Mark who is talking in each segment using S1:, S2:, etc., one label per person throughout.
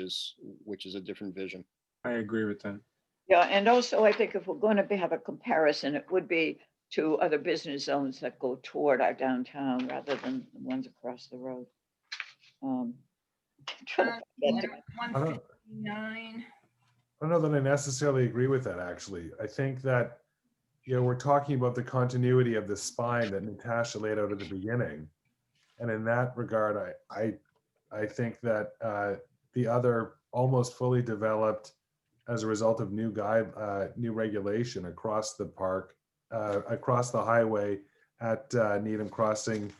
S1: is, which is a different vision.
S2: I agree with that.
S3: Yeah, and also I think if we're going to have a comparison, it would be to other business zones that go toward our downtown rather than the ones across the road. Um, trying to find that document.
S4: Uh, One
S5: I don't-
S4: fifty-nine.
S5: I don't know that I necessarily agree with that, actually. I think that, you know, we're talking about the continuity of the spine that Natasha laid out at the beginning. And in that regard, I, I, I think that uh, the other almost fully developed as a result of new guide, uh, new regulation across the park, uh, across the highway at uh, Needham Crossing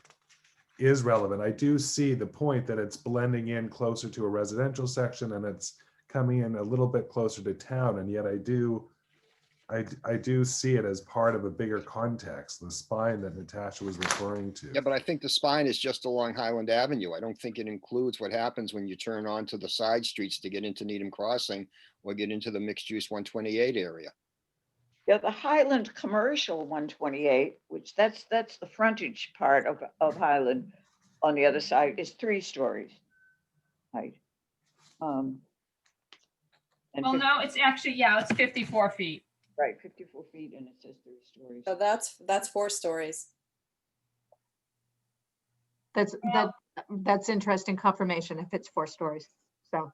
S5: is relevant. I do see the point that it's blending in closer to a residential section and it's coming in a little bit closer to town and yet i do i i do see it as part of a bigger context the spine that natasha was referring to
S1: Yeah, but I think the spine is just along Highland Avenue. I don't think it includes what happens when you turn onto the side streets to get into Needham Crossing or get into the mixed-use 128 area.
S3: Yeah, the Highland Commercial one twenty-eight, which that's, that's the frontage part of, of Highland. On the other side is three stories. Height. Um. And,
S4: Well,
S3: fif-
S4: no, it's actually, yeah, it's fifty-four feet.
S3: right, fifty-four feet and it says three stories.
S6: So that's, that's four stories.
S7: That's, that, that's interesting confirmation if it's four stories. So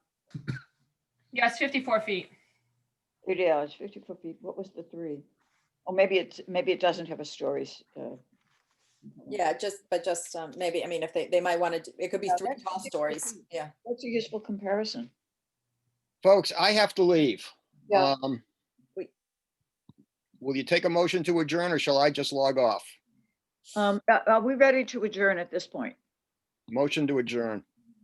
S4: Yeah, it's fifty-four feet.
S3: It is fifty-four feet. What was the three? Or maybe it's, maybe it doesn't have a stories. uh,
S6: Yeah, just, but just um, maybe, I mean, if they, they might want to, it could be
S3: Yeah,
S6: three
S3: that's-
S6: tall stories. Yeah.
S3: That's a useful comparison.
S1: Folks, I have to leave.
S3: Yeah.
S1: Um,
S6: Wait.
S1: Will you take a motion to adjourn or shall I just log off?
S3: Um, a- are we ready to adjourn at this point?
S1: Motion to adjourn.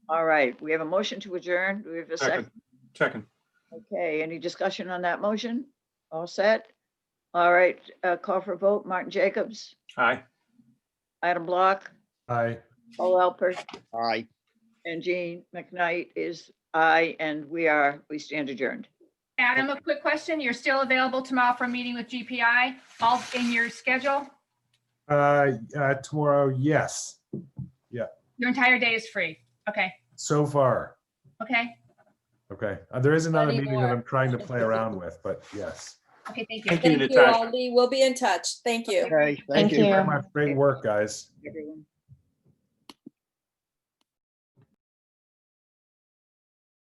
S3: All right, we have a motion to adjourn. Do we have a second?
S2: Second. Second.
S3: Okay, any discussion on that motion? All set? All right, uh, call for vote. Martin Jacobs,
S2: Aye.
S3: Adam Block,
S5: i
S3: Paul Alpert,
S1: Aye.
S3: and Jean McKnight is aye, and we are, we stand adjourned.
S4: Adam, a quick question. You're still available tomorrow for a meeting with GPI, all in your schedule?
S5: uh, uh tomorrow yes
S4: Your entire day is free. Okay,
S5: so far
S4: okay,
S5: okay Uh, there is another
S6: Plenty
S5: meeting that
S6: more.
S5: i'm trying to play around with but yes
S4: okay, thank you.
S2: Thank you,
S6: Thank you,
S2: Natasha.
S6: Aldi. We'll be in touch. Thank you.
S1: Okay, thank you.
S5: Thank you very much. great work guys
S3: Everyone.